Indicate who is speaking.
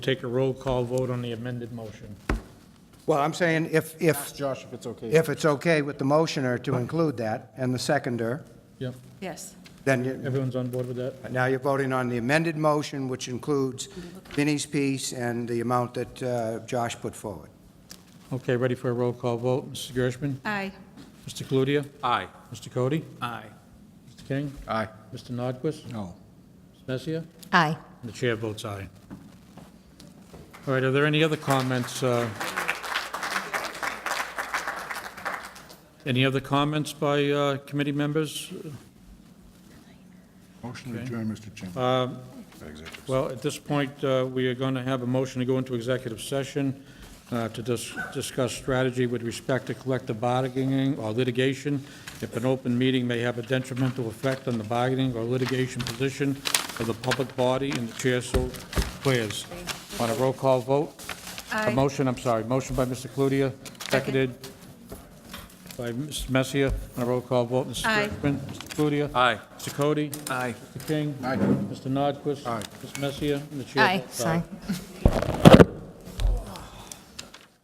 Speaker 1: Take a roll call vote on the amended motion.
Speaker 2: Well, I'm saying if, if,
Speaker 3: Josh if it's okay.
Speaker 2: if it's okay with the motioner to include that and the seconder,
Speaker 1: Yep,
Speaker 4: Yes.
Speaker 2: then you,
Speaker 1: everyone's on board with that?
Speaker 2: now you're voting on the amended motion, which includes Vinnie's piece and the amount that uh, Josh put forward.
Speaker 1: Okay, ready for a roll call vote. Mr. Gershman?
Speaker 4: Aye.
Speaker 1: Mr. Cludier?
Speaker 3: Aye.
Speaker 1: Mr. Cody?
Speaker 3: Aye.
Speaker 1: Mr. King?
Speaker 3: Aye.
Speaker 1: Mr. Nordquist?
Speaker 3: No.
Speaker 1: Ms. Messia?
Speaker 4: Aye.
Speaker 1: And The chair votes aye. All right, are there any other comments? uh, Any other comments by uh, committee members?
Speaker 5: Motion to adjourn, Mr. Chairman.
Speaker 1: Well, at this point, uh, we are going to have a motion to go into executive session uh, to dis- discuss strategy with respect to collective bargaining or litigation. If an open meeting may have a detrimental effect on the bargaining or litigation position of the public body, and the chair so declares. On a roll call vote? A
Speaker 4: Aye.
Speaker 1: motion, I'm sorry, motion by Mr. Cludier, seconded by Mr. Messia. On a roll call vote, Mrs.
Speaker 4: Aye.
Speaker 1: Gershman. Mr. Cludier.
Speaker 3: Aye.
Speaker 1: Mr. Cody.
Speaker 3: Aye.
Speaker 1: Mr. King?
Speaker 5: Aye.
Speaker 1: Mr. Nordquist?
Speaker 5: Aye.
Speaker 1: Ms. Messia? And the chair
Speaker 4: Aye.
Speaker 1: votes
Speaker 4: Sorry.